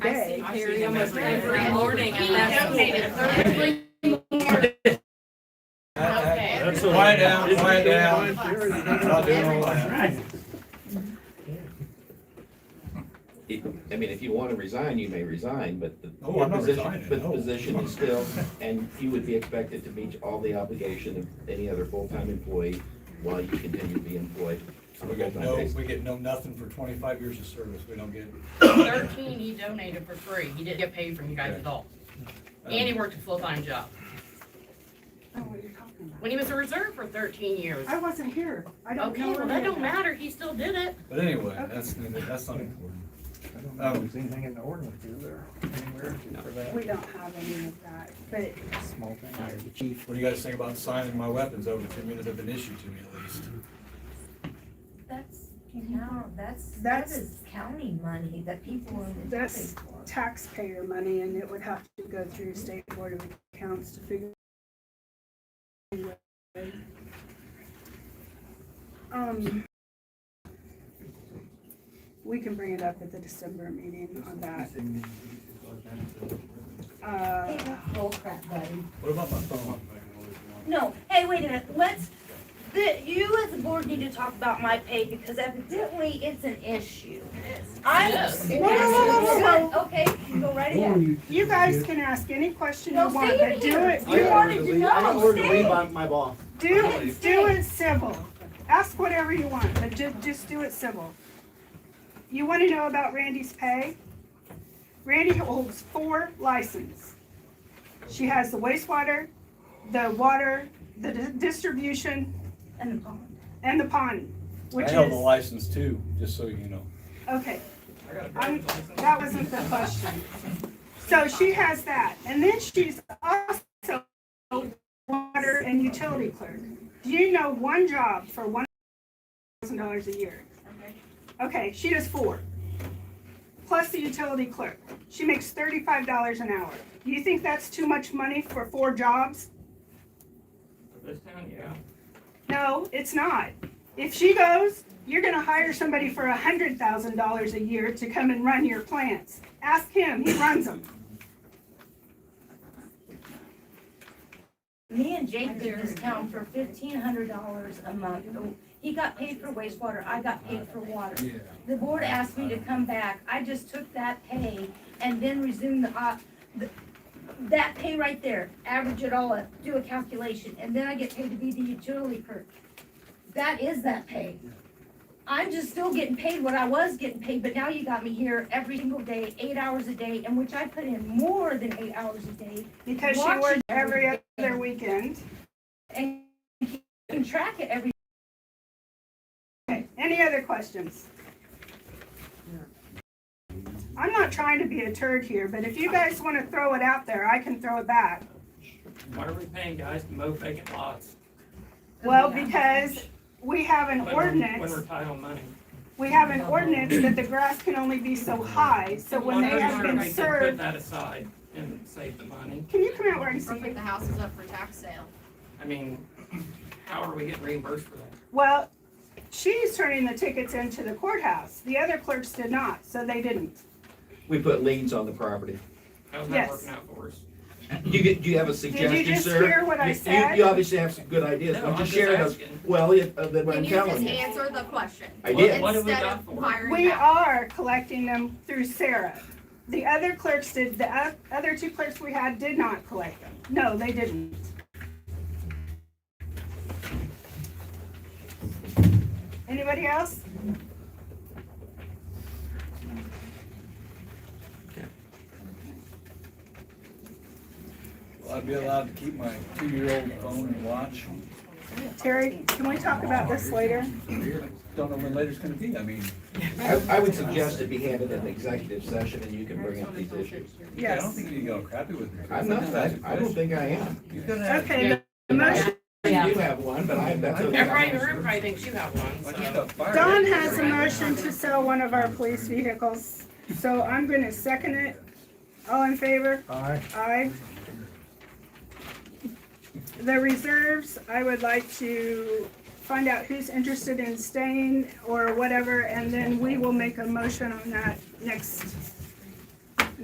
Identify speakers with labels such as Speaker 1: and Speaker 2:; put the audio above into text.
Speaker 1: I see him almost every morning.
Speaker 2: He donated thirty-three
Speaker 3: Okay.
Speaker 4: That's all right.
Speaker 5: Quiet down, quiet down. Not doing all that.
Speaker 6: I mean, if you want to resign, you may resign, but the.
Speaker 5: Oh, I'm not
Speaker 6: position-
Speaker 5: resigning,
Speaker 6: But the
Speaker 5: no.
Speaker 6: position is still, and you would be expected to meet all the obligation of any other full-time employee while you continue to be employed on a
Speaker 5: We get
Speaker 6: full-time
Speaker 5: no,
Speaker 6: basis.
Speaker 5: we get no nothing for twenty-five years of service, we don't get.
Speaker 3: Thirteen he donated for free. He didn't get paid from you guys at all. And he worked a full-time job.
Speaker 2: Oh, what are you talking about?
Speaker 3: When he was a reserve for thirteen years.
Speaker 2: I wasn't here. I don't know.
Speaker 3: Okay, well,
Speaker 2: where
Speaker 3: that
Speaker 2: it
Speaker 3: don't
Speaker 2: is.
Speaker 3: matter. He still did it.
Speaker 5: But anyway, that's, that's not important.
Speaker 7: I don't think there's anything in the ordinance, is there? Anywhere for that?
Speaker 2: We don't have any of that, but
Speaker 7: Small thing there, the chief.
Speaker 5: What do you guys think about signing my weapons over to me that have been issued to me at least?
Speaker 8: That's, no, that's, that
Speaker 2: That's-
Speaker 8: is county money that people in the
Speaker 2: That's-
Speaker 8: county for.
Speaker 2: taxpayer money and it would have to go through state board of accounts to figure. Um, we can bring it up at the December meeting on that.
Speaker 8: Hey,
Speaker 2: Uh,
Speaker 8: that's bull crap, buddy.
Speaker 5: What about my phone?
Speaker 9: No, hey, wait a minute, let's, the, you as a board need to talk about my pay because evidently it's an issue. I'm.
Speaker 3: Yes.
Speaker 9: Whoa, whoa, whoa, whoa, whoa. Okay, you go right ahead.
Speaker 2: you guys can ask any question you
Speaker 9: No,
Speaker 2: want,
Speaker 9: stay in
Speaker 2: but do
Speaker 9: here.
Speaker 2: it,
Speaker 9: You
Speaker 2: do,
Speaker 9: wanted to know.
Speaker 7: I ordered to
Speaker 9: Stay.
Speaker 7: leave by my boss.
Speaker 2: do, do it civil. Ask whatever you want, but ju- just do it civil. You wanna know about Randy's pay? Randy holds four licenses. She has the wastewater, the water, the di- distribution,
Speaker 9: And the pond.
Speaker 2: and the pond, which
Speaker 5: I
Speaker 2: is.
Speaker 5: held the license too, just so you know.
Speaker 2: Okay. I'm, that wasn't the question. So she has that, and then she's also water and utility clerk. Do you know one job for one thousand dollars a year? Okay, she does four. Plus the utility clerk. She makes thirty-five dollars an hour. Do you think that's too much money for four jobs?
Speaker 1: This town, yeah.
Speaker 2: No, it's not. If she goes, you're gonna hire somebody for a hundred thousand dollars a year to come and run your plants. Ask him, he runs them.
Speaker 9: Me and Jake did this town for fifteen hundred dollars a month. He got paid for wastewater, I got paid for water.
Speaker 5: Yeah.
Speaker 9: The board asked me to come back, I just took that pay and then resumed the, op- the- that pay right there, average it all up, do a calculation, and then I get paid to be the utility clerk. That is that pay. I'm just still getting paid what I was getting paid, but now you got me here every single day, eight hours a day, in which I put in more than eight hours a day,
Speaker 2: Because she
Speaker 9: Watch
Speaker 2: works
Speaker 9: it
Speaker 2: every
Speaker 9: every
Speaker 2: other weekend.
Speaker 9: and you can track it every
Speaker 2: Okay, any other questions? I'm not trying to be a turd here, but if you guys wanna throw it out there, I can throw it back.
Speaker 1: Why are we paying guys to mow vacant lots?
Speaker 2: Well, because we have an
Speaker 1: when we're- When
Speaker 2: ordinance,
Speaker 1: we're title money.
Speaker 2: we have an ordinance that the grass can only be so high, so when
Speaker 1: Well,
Speaker 2: they
Speaker 1: I
Speaker 2: have
Speaker 1: wonder
Speaker 2: been
Speaker 1: if they could Put
Speaker 2: served,
Speaker 1: that aside and save the money.
Speaker 2: can you come out where I can see
Speaker 3: Or
Speaker 2: you?
Speaker 3: put the houses up for tax sale.
Speaker 1: I mean, how are we getting reimbursed for that?
Speaker 2: Well, she's turning the tickets into the courthouse. The other clerks did not, so they didn't.
Speaker 6: We put liens on the property.
Speaker 1: How's
Speaker 2: Yes.
Speaker 1: that working out for us?
Speaker 6: You get, do you have a suggestion, sir?
Speaker 2: just hear what I
Speaker 6: You- you-
Speaker 2: said?
Speaker 6: You obviously have some good ideas.
Speaker 1: No,
Speaker 6: Why don't
Speaker 1: I'm
Speaker 6: you
Speaker 1: just
Speaker 6: share those?
Speaker 1: asking.
Speaker 6: Well, it- uh, then what
Speaker 10: Can
Speaker 6: I'm
Speaker 10: you just
Speaker 6: telling you.
Speaker 10: answer the question?
Speaker 6: I did.
Speaker 1: What have we
Speaker 10: Instead
Speaker 1: got
Speaker 10: of
Speaker 1: for it?
Speaker 10: firing
Speaker 2: We
Speaker 10: back.
Speaker 2: are collecting them through Sarah. The other clerks did, the o- other two clerks we had did not collect them. No, they didn't. Anybody else?
Speaker 5: Will I be allowed to keep my two-year-old phone and watch?
Speaker 2: Terry, can we talk about this later?
Speaker 5: Don't know when later's gonna be, I mean.
Speaker 6: I, I would suggest it be handled in an executive session and you can bring up these issues.
Speaker 5: I don't
Speaker 2: Yes.
Speaker 5: think you got crappy with me.
Speaker 6: I'm not, I, I don't think I am.
Speaker 5: You've got to have.
Speaker 2: Okay, the motion,
Speaker 3: Yeah.
Speaker 6: You have one, but I, that's okay.
Speaker 3: Everybody in the room probably thinks you have one, so.
Speaker 2: Don has a motion to sell one of our police vehicles, so I'm gonna second it. All in favor?
Speaker 7: Alright.
Speaker 2: Aye. The reserves, I would like to find out who's interested in staying or whatever, and then we will make a motion on that next